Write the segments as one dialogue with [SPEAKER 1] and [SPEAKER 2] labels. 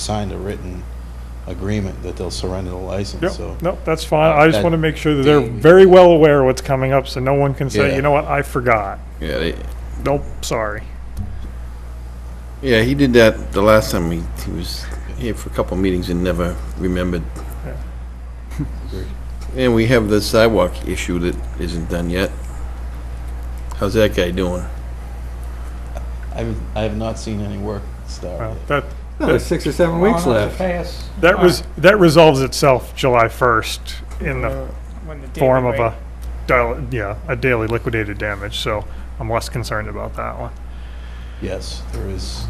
[SPEAKER 1] signed a written agreement that they'll surrender the license, so.
[SPEAKER 2] Yep, no, that's fine. I just
[SPEAKER 1] That-
[SPEAKER 2] want to make sure that they're very well aware of what's coming up, so no one can say, you know what, I forgot.
[SPEAKER 3] Yeah, they,
[SPEAKER 2] Nope, sorry.
[SPEAKER 3] yeah, he did that the last time he, he was here for a couple meetings and never remembered. And we have the sidewalk issue that isn't done yet. How's that guy doing?
[SPEAKER 1] I have, I have not seen any work
[SPEAKER 2] Well,
[SPEAKER 1] started.
[SPEAKER 2] That,
[SPEAKER 4] There's six or seven weeks
[SPEAKER 5] Well, not
[SPEAKER 4] left.
[SPEAKER 5] to pass Uh,
[SPEAKER 2] that res, that resolves itself July 1st in the
[SPEAKER 5] when the daily
[SPEAKER 2] form of a,
[SPEAKER 5] rate-
[SPEAKER 2] dil- yeah, a daily liquidated damage, so I'm less concerned about that one.
[SPEAKER 1] Yes, there is,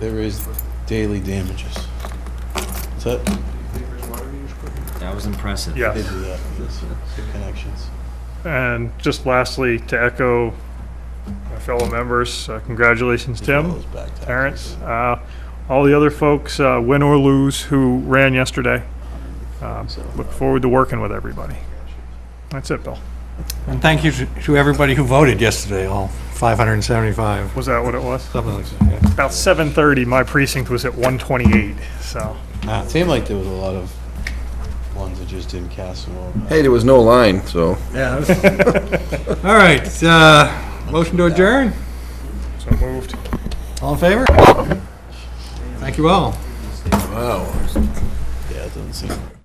[SPEAKER 1] there is daily damages. So,
[SPEAKER 6] That was impressive.
[SPEAKER 1] I did
[SPEAKER 2] Yes.
[SPEAKER 1] do that, this, uh, connections.
[SPEAKER 2] And just lastly, to echo my fellow members, uh, congratulations, Tim.
[SPEAKER 1] Those back taxes.
[SPEAKER 2] Terrence, uh, all the other folks, uh, win or lose, who ran yesterday. Um, Look forward to working with everybody. That's it, Bill.
[SPEAKER 4] And thank you to to everybody who voted yesterday, all 575,
[SPEAKER 2] Was that what it was?
[SPEAKER 4] something like that.
[SPEAKER 2] About 7:30, my precinct was at 128, so.
[SPEAKER 4] yeah.
[SPEAKER 1] It seemed like there was a lot of ones that just didn't cast them all.
[SPEAKER 3] Hey, there was no line, so.
[SPEAKER 4] Yeah. that's- All right, uh, motion to adjourn?
[SPEAKER 2] So moved.
[SPEAKER 4] All in favor? Thank you all.
[SPEAKER 3] Wow.
[SPEAKER 1] Yeah, it doesn't seem.